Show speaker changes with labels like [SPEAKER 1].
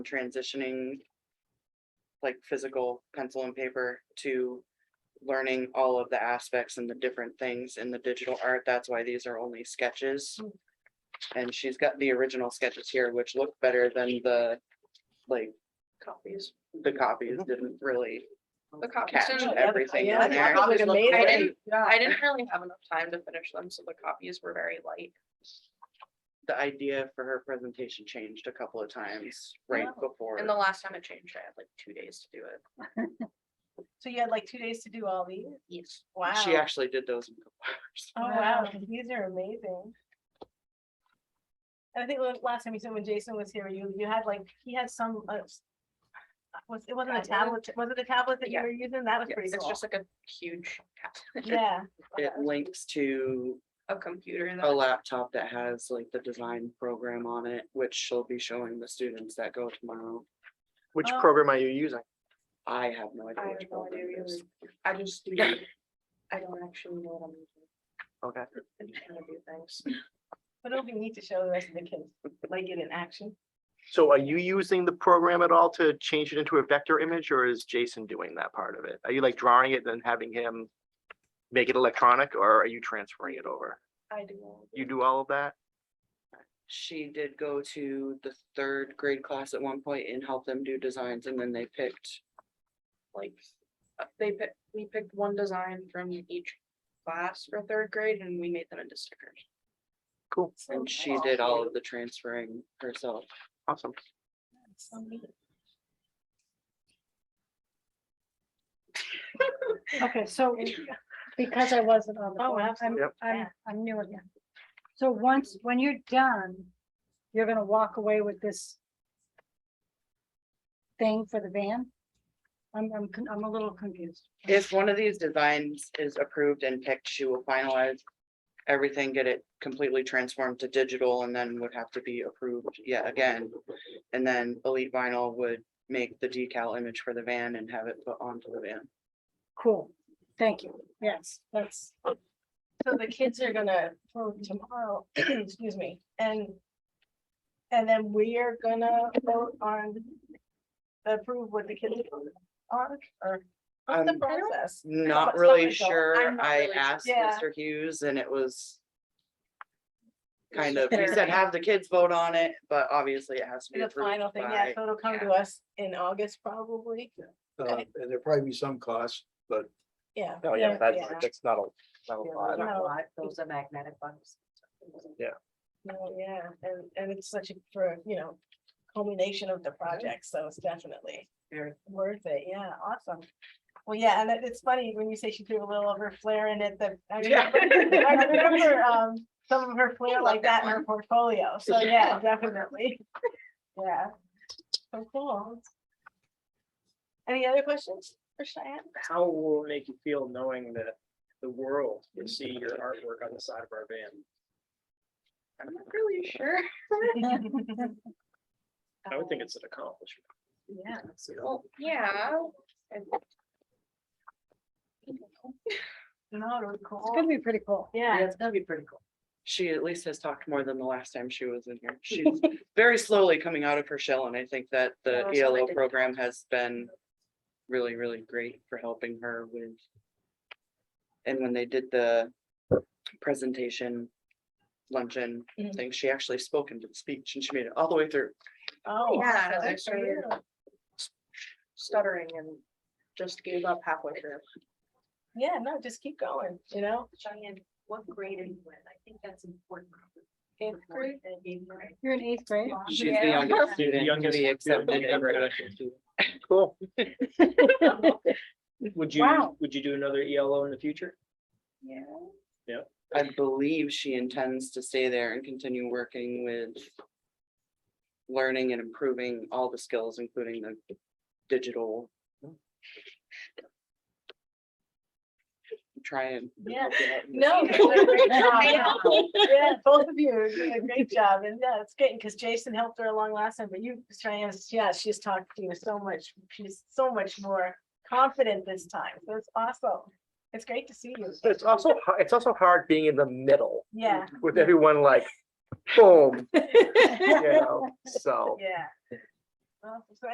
[SPEAKER 1] transitioning like physical pencil and paper to learning all of the aspects and the different things in the digital art. That's why these are only sketches.
[SPEAKER 2] Mm.
[SPEAKER 1] And she's got the original sketches here, which look better than the, like,
[SPEAKER 2] copies.
[SPEAKER 1] the copies didn't really
[SPEAKER 2] The copies.
[SPEAKER 1] catch
[SPEAKER 2] didn't-
[SPEAKER 1] everything
[SPEAKER 2] Mm-hmm. yeah,
[SPEAKER 1] in
[SPEAKER 2] the
[SPEAKER 1] there.
[SPEAKER 2] copies look great. I didn't,
[SPEAKER 3] Yeah.
[SPEAKER 2] I didn't really have enough time to finish them, so the copies were very light.
[SPEAKER 1] The idea for her presentation changed a couple of times right
[SPEAKER 2] Oh.
[SPEAKER 1] before.
[SPEAKER 2] And the last time it changed, I had like two days to do it.
[SPEAKER 3] So you had like two days to do all these?
[SPEAKER 2] Yes.
[SPEAKER 3] Wow.
[SPEAKER 1] She actually did those in a couple hours.
[SPEAKER 3] Oh, wow, these are amazing. And I think the last time you said when Jason was here, you, you had like, he had some, uh, s- was, it wasn't a
[SPEAKER 2] Tablet?
[SPEAKER 3] tablet, was it a tablet that you
[SPEAKER 2] Yeah.
[SPEAKER 3] were using? That was
[SPEAKER 1] Yeah,
[SPEAKER 3] pretty
[SPEAKER 2] It's
[SPEAKER 3] cool.
[SPEAKER 2] just like a huge cat-
[SPEAKER 3] Yeah,
[SPEAKER 1] It links to
[SPEAKER 2] a computer
[SPEAKER 1] a
[SPEAKER 2] that,
[SPEAKER 1] laptop that has like the design program on it, which she'll be showing the students that go tomorrow.
[SPEAKER 4] Which
[SPEAKER 3] Oh.
[SPEAKER 4] program are you using?
[SPEAKER 1] I have no
[SPEAKER 2] I
[SPEAKER 1] idea
[SPEAKER 2] have
[SPEAKER 1] which
[SPEAKER 2] no idea
[SPEAKER 1] program it is.
[SPEAKER 2] either. I just do. I don't actually know what I'm using.
[SPEAKER 4] Okay.
[SPEAKER 2] I'm just trying to do things.
[SPEAKER 3] but it'll be neat to show the rest of the kids, like it in action.
[SPEAKER 4] So are you using the program at all to change it into a vector image or is Jason doing that part of it? Are you like drawing it then having him make it electronic or are you transferring it over?
[SPEAKER 2] I do. all of
[SPEAKER 4] You
[SPEAKER 2] it.
[SPEAKER 4] do all of that?
[SPEAKER 1] She did go to the third grade class at one point and help them do designs and then they picked,
[SPEAKER 2] like, uh, they picked, we picked one design from each class for third grade and we made them into stickers.
[SPEAKER 4] Cool,
[SPEAKER 2] Oh,
[SPEAKER 1] and she did all of the transferring herself.
[SPEAKER 4] awesome.
[SPEAKER 3] So neat.
[SPEAKER 5] Okay, so because I wasn't on the
[SPEAKER 3] Oh,
[SPEAKER 5] board, I'm,
[SPEAKER 4] Yep.
[SPEAKER 5] I'm,
[SPEAKER 3] Yeah.
[SPEAKER 5] I'm new again. So once, when you're done, you're gonna walk away with this thing for the van? I'm, I'm, con- I'm a little confused.
[SPEAKER 1] If one of these designs is approved and picked, she will finalize everything, get it completely transformed to digital and then would have to be approved yet again. And then Elite Vinyl would make the decal image for the van and have it put onto the van.
[SPEAKER 5] Cool, thank you. Yes, that's,
[SPEAKER 3] So the kids are gonna, for tomorrow, excuse me, and. And then we are gonna vote on. Approve what the kids are, or. What's the
[SPEAKER 1] Um,
[SPEAKER 3] process?
[SPEAKER 1] Not
[SPEAKER 3] Something
[SPEAKER 1] really
[SPEAKER 3] like that.
[SPEAKER 1] sure.
[SPEAKER 2] I'm not
[SPEAKER 1] I
[SPEAKER 2] really sure.
[SPEAKER 1] asked
[SPEAKER 3] Yeah.
[SPEAKER 1] Mr. Hughes and it was kind of, he
[SPEAKER 3] Fair.
[SPEAKER 1] said have the kids vote on it, but obviously it has to be
[SPEAKER 3] The final
[SPEAKER 1] approved
[SPEAKER 3] thing, yeah,
[SPEAKER 1] by.
[SPEAKER 3] so it'll come to us in August probably,
[SPEAKER 6] Uh, and there'll probably be some cost, but
[SPEAKER 3] yeah.
[SPEAKER 4] Oh, yeah, that's,
[SPEAKER 3] yeah.
[SPEAKER 4] that's not a, not a lot.
[SPEAKER 3] No.
[SPEAKER 2] Those are magnetic ones.
[SPEAKER 3] No, yeah, and, and it's such a, for, you know, culmination of the project, so it's definitely
[SPEAKER 2] Very.
[SPEAKER 3] worth it, yeah, awesome. Well, yeah, and it- it's funny when you say she threw a little of her flair in it, that I
[SPEAKER 1] Yeah.
[SPEAKER 3] remember, I remember, um, some of her flair
[SPEAKER 2] love
[SPEAKER 3] like
[SPEAKER 2] that
[SPEAKER 3] that in her portfolio, so yeah, definitely. Yeah, so cool. Any other questions for Cheyenne?
[SPEAKER 7] how will it make you feel knowing that the world will see your artwork on the side of our van?
[SPEAKER 2] I'm not really sure.
[SPEAKER 7] I would think it's an accomplishment.
[SPEAKER 3] Yeah.
[SPEAKER 2] Well, yeah. and-
[SPEAKER 3] No, it was
[SPEAKER 5] it's
[SPEAKER 3] cool.
[SPEAKER 5] gonna be pretty cool.
[SPEAKER 3] Yeah.
[SPEAKER 1] it's gonna be pretty cool. She at least has talked more than the last time she was in here. She's very slowly coming out of her shell and I think that
[SPEAKER 2] Oh,
[SPEAKER 1] the
[SPEAKER 2] so they
[SPEAKER 1] ELO
[SPEAKER 2] did-
[SPEAKER 1] program has been really, really great for helping her with. And when they did the presentation luncheon
[SPEAKER 3] Mhm.
[SPEAKER 1] thing, she actually spoke into the speech and she made it all the way through.
[SPEAKER 3] Oh.
[SPEAKER 2] Yeah,
[SPEAKER 3] awesome.
[SPEAKER 2] that's
[SPEAKER 3] Good for
[SPEAKER 2] true.
[SPEAKER 3] you.
[SPEAKER 2] Stuttering and just gave up halfway through.
[SPEAKER 3] Yeah, no, just keep going, you know?
[SPEAKER 8] Cheyenne, what grade are you in? I think that's important.
[SPEAKER 3] Eighth grade?
[SPEAKER 5] You're in eighth grade.
[SPEAKER 1] She's the youngest student to
[SPEAKER 7] Youngest
[SPEAKER 1] be
[SPEAKER 7] student
[SPEAKER 1] accepted.
[SPEAKER 7] ever.
[SPEAKER 1] in-
[SPEAKER 4] Cool.
[SPEAKER 7] Would you,
[SPEAKER 5] Wow.
[SPEAKER 7] would you do another ELO in the future?
[SPEAKER 2] Yeah.
[SPEAKER 1] I believe she intends to stay there and continue working with learning and improving all the skills, including the digital. Try and.
[SPEAKER 3] Yeah.
[SPEAKER 1] help you out in the
[SPEAKER 3] No.
[SPEAKER 1] future.
[SPEAKER 3] you're doing a great job. Yeah, both of you, are doing a great job, and yeah, it's good, because Jason helped her along last time, but you, Cheyenne, yeah, she's talked to you so much, she's so much more confident this time, so it's awesome. It's great to see you.
[SPEAKER 4] It's also, har- it's also hard being in the middle
[SPEAKER 3] Yeah,
[SPEAKER 4] with everyone like, boom, you know, so.
[SPEAKER 3] yeah, Well, so